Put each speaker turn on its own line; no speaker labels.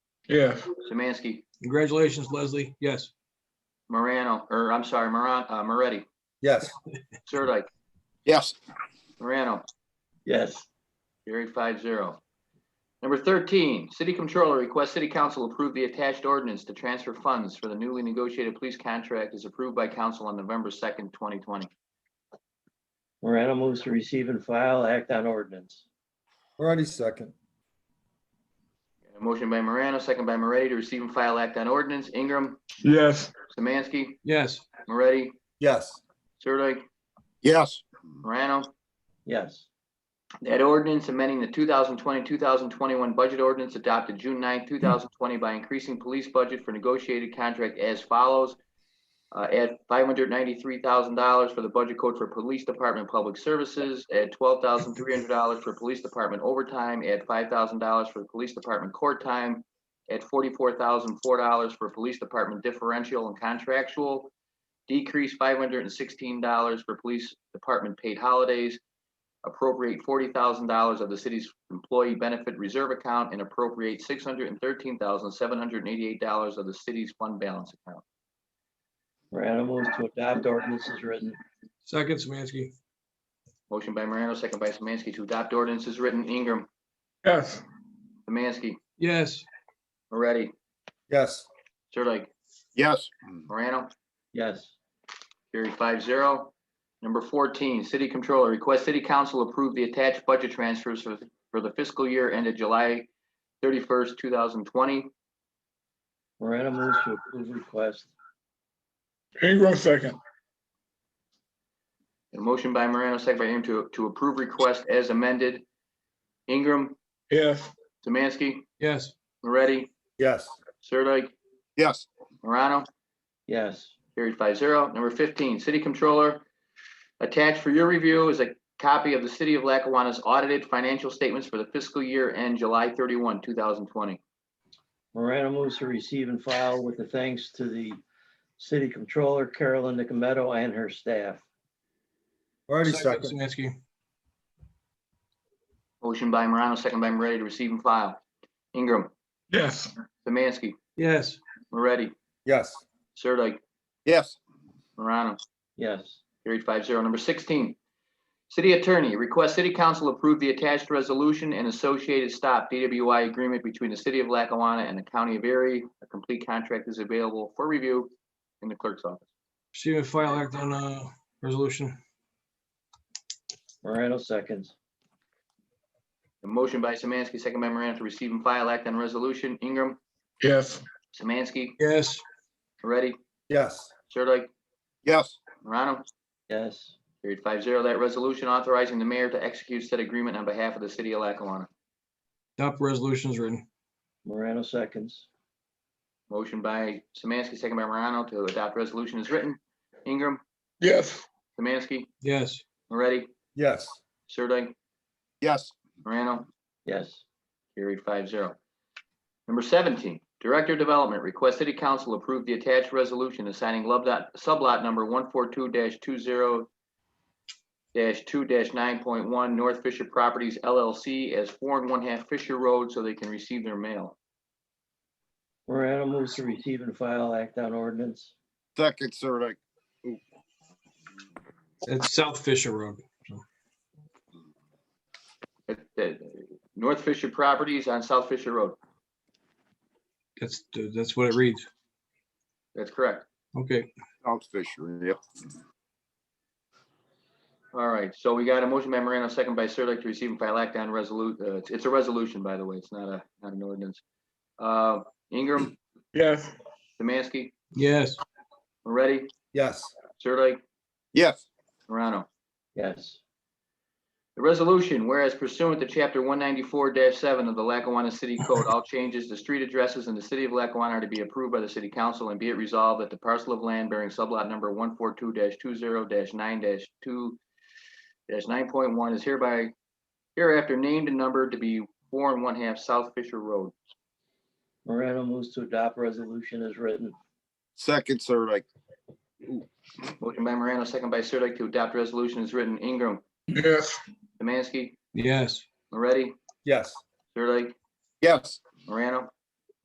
Yes.
Samansky,
Congratulations, Leslie. Yes.
Morano, or I'm sorry, Moran, uh, Moretti,
Yes.
Sirdike,
yes,
Morano,
Yes.
carried five zero. Number thirteen, city controller requests city council approve the attached ordinance to transfer funds for the newly negotiated police contract as approved by council on November second, twenty twenty.
Morano moves to receive and file act on ordinance.
Moretti second.
Motion by Morano, second by Moretti to receive and file act on ordinance. Ingram,
Yes.
Samansky,
Yes.
Moretti,
Yes.
Sirdike,
yes,
Morano.
Yes.
That ordinance amending the 2020, 2021 budget ordinance adopted June 9, 2020 by increasing police budget for negotiated contract as follows. Uh, Add $593,000 for the budget code for Police Department Public Services. Add $12,300 for Police Department overtime. Add $5,000 for the Police Department court time. Add $44,004 for Police Department differential and contractual. Decrease $516 for Police Department paid holidays appropriate forty thousand dollars of the city's employee benefit reserve account and appropriate six hundred and thirteen thousand, seven hundred and eighty-eight dollars of the city's fund balance account.
Morano moves to adopt ordinance as written.
Second, Samansky.
Motion by Morano, second by Samansky to adopt ordinance is written. Ingram,
Yes.
Samansky,
Yes.
Moretti,
Yes.
Sirdike,
yes,
Morano.
Yes.
Carried five zero. Number fourteen, city controller requests city council approve the attached budget transfers for, for the fiscal year ended July thirty-first, two thousand twenty.
Morano moves to approve request.
Ingram second.
A motion by Morano, second by Ingram to, to approve request as amended. Ingram,
Yes.
Samansky,
Yes.
Moretti,
Yes.
Sirdike,
yes,
Morano,
Yes.
carried five zero. Number fifteen, city controller. Attached for your review is a copy of the city of Lackawanna's audited financial statements for the fiscal year end July thirty-one, two thousand twenty.
Morano moves to receive and file with the thanks to the city controller Carolyn Nicometto and her staff.
Moretti
Second,
second.
Samansky.
Motion by Morano, second by Moretti to receive and file. Ingram,
Yes.
Samansky,
Yes.
Moretti,
Yes.
Sirdike,
yes,
Morano.
Yes.
Carried five zero. Number sixteen, city attorney requests city council approve the attached resolution and associated stop DWI agreement between the city of Lackawanna and the county of Erie. A complete contract is available for review in the clerk's office.
Receive and file act on uh resolution.
Morano seconds.
A motion by Samansky, second by Morano to receive and file act on resolution. Ingram,
Yes.
Samansky,
Yes.
Moretti,
Yes.
Sirdike,
yes,
Morano.
Yes.
Carried five zero. That resolution authorizing the mayor to execute said agreement on behalf of the city of Lackawanna.
Adopt resolutions written.
Morano seconds.
Motion by Samansky, second by Morano to adopt resolution is written. Ingram,
Yes.
Samansky,
Yes.
Moretti,
Yes.
Sirdike,
yes,
Morano,
Yes.
carried five zero. Number seventeen, Director of Development requests City Council approve the attached resolution assigning lub dot- sublot number one four two two zero two nine point one North Fisher Properties LLC as four and one half Fisher Road so they can receive their mail.
Morano moves to receive and file act on ordinance.
second, Sirdike,
It's South Fisher Road.
Uh, uh, North Fisher Properties on South Fisher Road.
That's, that's what it reads.
That's correct.
Okay.
South Fisher, yep,
All right, so we got a motion by Morano, second by Sirdike to receive and file act on resolute, uh, it's- it's a resolution, by the way, it's not a, not an ordinance. Uh, Ingram,
Yes.
Samansky,
Yes.
Moretti,
Yes.
Sirdike,
yes,
Morano.
Yes.
The resolution, whereas pursuant to chapter one ninety-four seven of the Lackawanna City Code, all changes to street addresses in the city of Lackawanna are to be approved by the city council and be it resolved that the parcel of land bearing sublot number one four two two zero nine two nine point one is hereby hereafter named and numbered to be four and one half South Fisher Road.
Morano moves to adopt resolution as written.
second, Sirdike,
Motion by Morano, second by Sirdike to adopt resolution is written. Ingram,
Yes.
Samansky,
Yes.
Moretti,
Yes.
Sirdike,
yes,
Morano.